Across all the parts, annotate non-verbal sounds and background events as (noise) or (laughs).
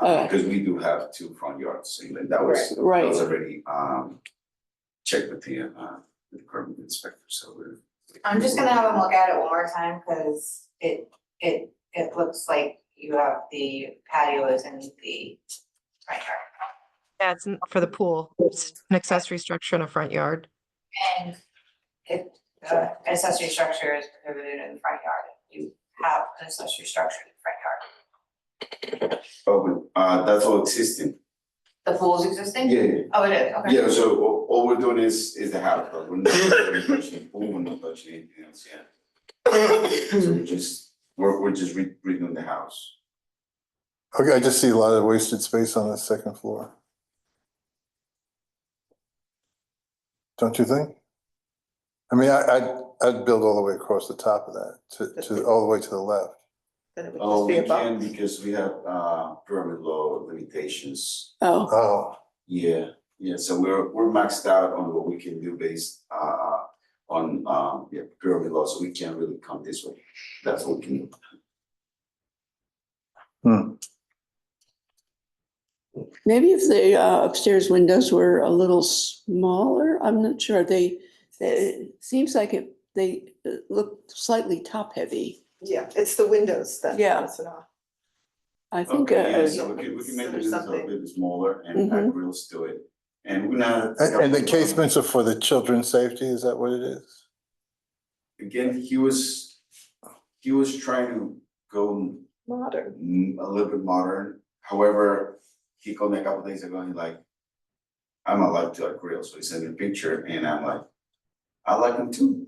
Okay. Because we do have two front yards, and that was, that Right. was already, um, checked with the, uh, the curb inspector, so we're. I'm just gonna have them look at it one more time, cause it, it, it looks like you have the patios and the front yard. Yeah, it's n- for the pool. It's an accessory structure in a front yard. And it, the accessory structure is prohibited in the front yard, you have an accessory structure in the front yard. Oh, but, uh, that's all existing, The pool's existing? yeah, Oh, it is, okay. yeah, so all, all we're doing is, is the house, but we're not really touching (laughs) the pool, we're not touching anything else, yeah. So (coughs) we're just, we're, we're just re- redoing the house. Okay, I just see a lot of wasted space on the second floor. Don't you think? I mean, I, I'd, I'd build all the way across the top of that, to, to, all the way to the left. Then it would Oh, just be we a can box. because we have, uh, permit law limitations, Oh, Oh, Yeah, yeah, so we're we're maxed out on what we can do based uh on um yeah, pyramid law, so we can't really come this way. That's what we can do. maybe if the uh, upstairs windows were a little smaller, I'm not sure. They, it seems like it, they uh, look slightly top heavy. Yeah, it's the windows that Yeah. throws it off. I think, Okay, yeah, uh, so we can we can make the Or business a something. little bit smaller and Mm-hmm. add grills to it. And we're not. and, and the casements are for the children's safety, is that what it is? Again, he was he was trying to go Modern. mm, a little bit modern. However, he called me a couple days ago and he like, I'm allowed to like grill, so he sent me a picture and I'm like, I like them too.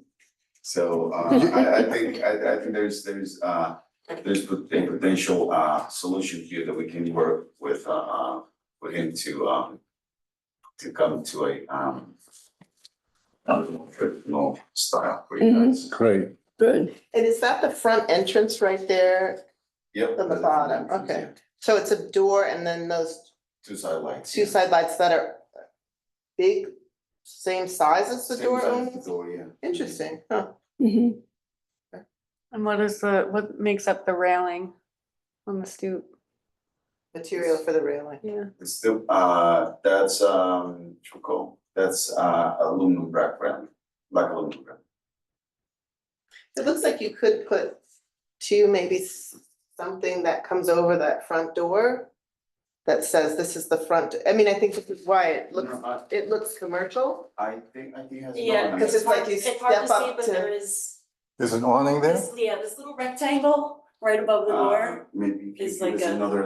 So uh I I think I I think there's there's uh there's pot- a potential uh solution here that we can work with uh uh with him to um to come to a um traditional style for you Mhm. guys. Great. good. And is that the front entrance right there? Yep. On the bottom, okay. So it's a door and then those Two sidelights. two side lights that are big, same size as the door The only? door, yeah. Interesting, huh? Mhm. And what is the, what makes up the railing on the stoop? Material for the railing. Yeah. It's still, uh, that's, um, charcoal, that's, uh, aluminum wrap around, black aluminum wrap. It looks like you could put two, maybe s- something that comes over that front door that says this is the front, I mean, I think this is why it looks, No, I- it looks commercial. I think, I think it has. Yeah, no, Because it's like you It's hard to step see, up but there to, is There's an awning there? this, yeah, this little rectangle right above the Uh, door. maybe is there's like a- another.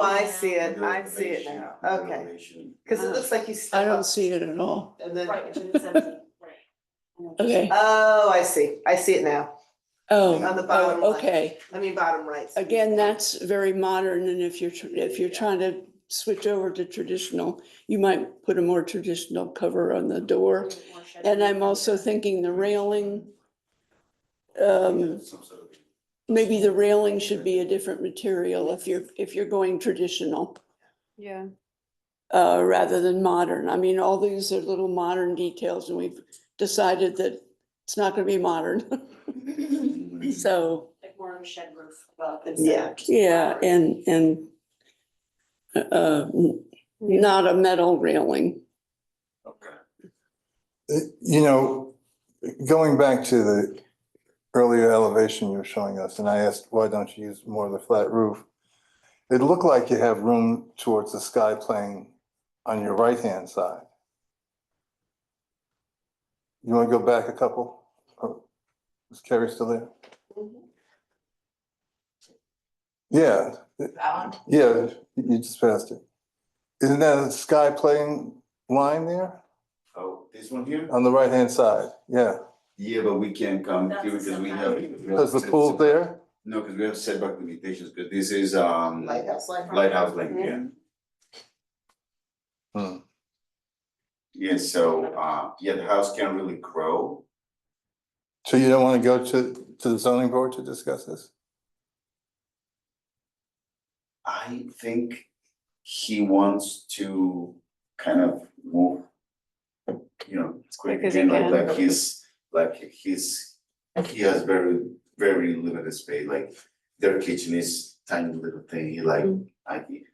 elevation, I see it, another I see it elevation, now, another okay. elevation. Cause it looks like you I step don't up see it at all. and then, Right, and it's empty, right. Okay. oh, I see, I see it now, Oh, On the bottom oh, left. okay. I mean, bottom right. Again, that's very modern and if you're, tr- if you're Yeah. trying to switch over to traditional, you might put a more traditional cover on the door. And I'm also thinking the railing, um, Some Mm. sort of- maybe the railing should be a different material if you're, if you're going traditional, Yeah. uh, rather than modern. I mean, all these are little modern details and we've decided that it's not gonna be modern. (laughs) So, Like more of a shed roof above. Yeah. yeah, and, and uh, not a metal railing. Okay. Uh, You know, going back to the earlier elevation you were showing us, and I asked, why don't you use more of the flat roof? It looked like you have room towards the sky plane on your right-hand side. You want to go back a couple? Oh, Is Carrie still there? Mhm. Yeah, That one, yeah, you just passed it. Isn't that a sky plane line there Oh, this one here? on the right-hand side? Yeah, Yeah, but we can't come That's here because we have. something. because the pool's there? No, because we have setback limitations, because this is, um, lighthouse, lighthouse. lighthouse lane, yeah. Hmm. Yeah, so, uh, yeah, the house can't really grow. So you don't want to go to, to the zoning board to discuss this? I think he wants to kind of move, you know, quick, quick as he again, like, can. like he's, like he's, he has very, Mm. very limited space, like their kitchen is tiny little thing, he like, I,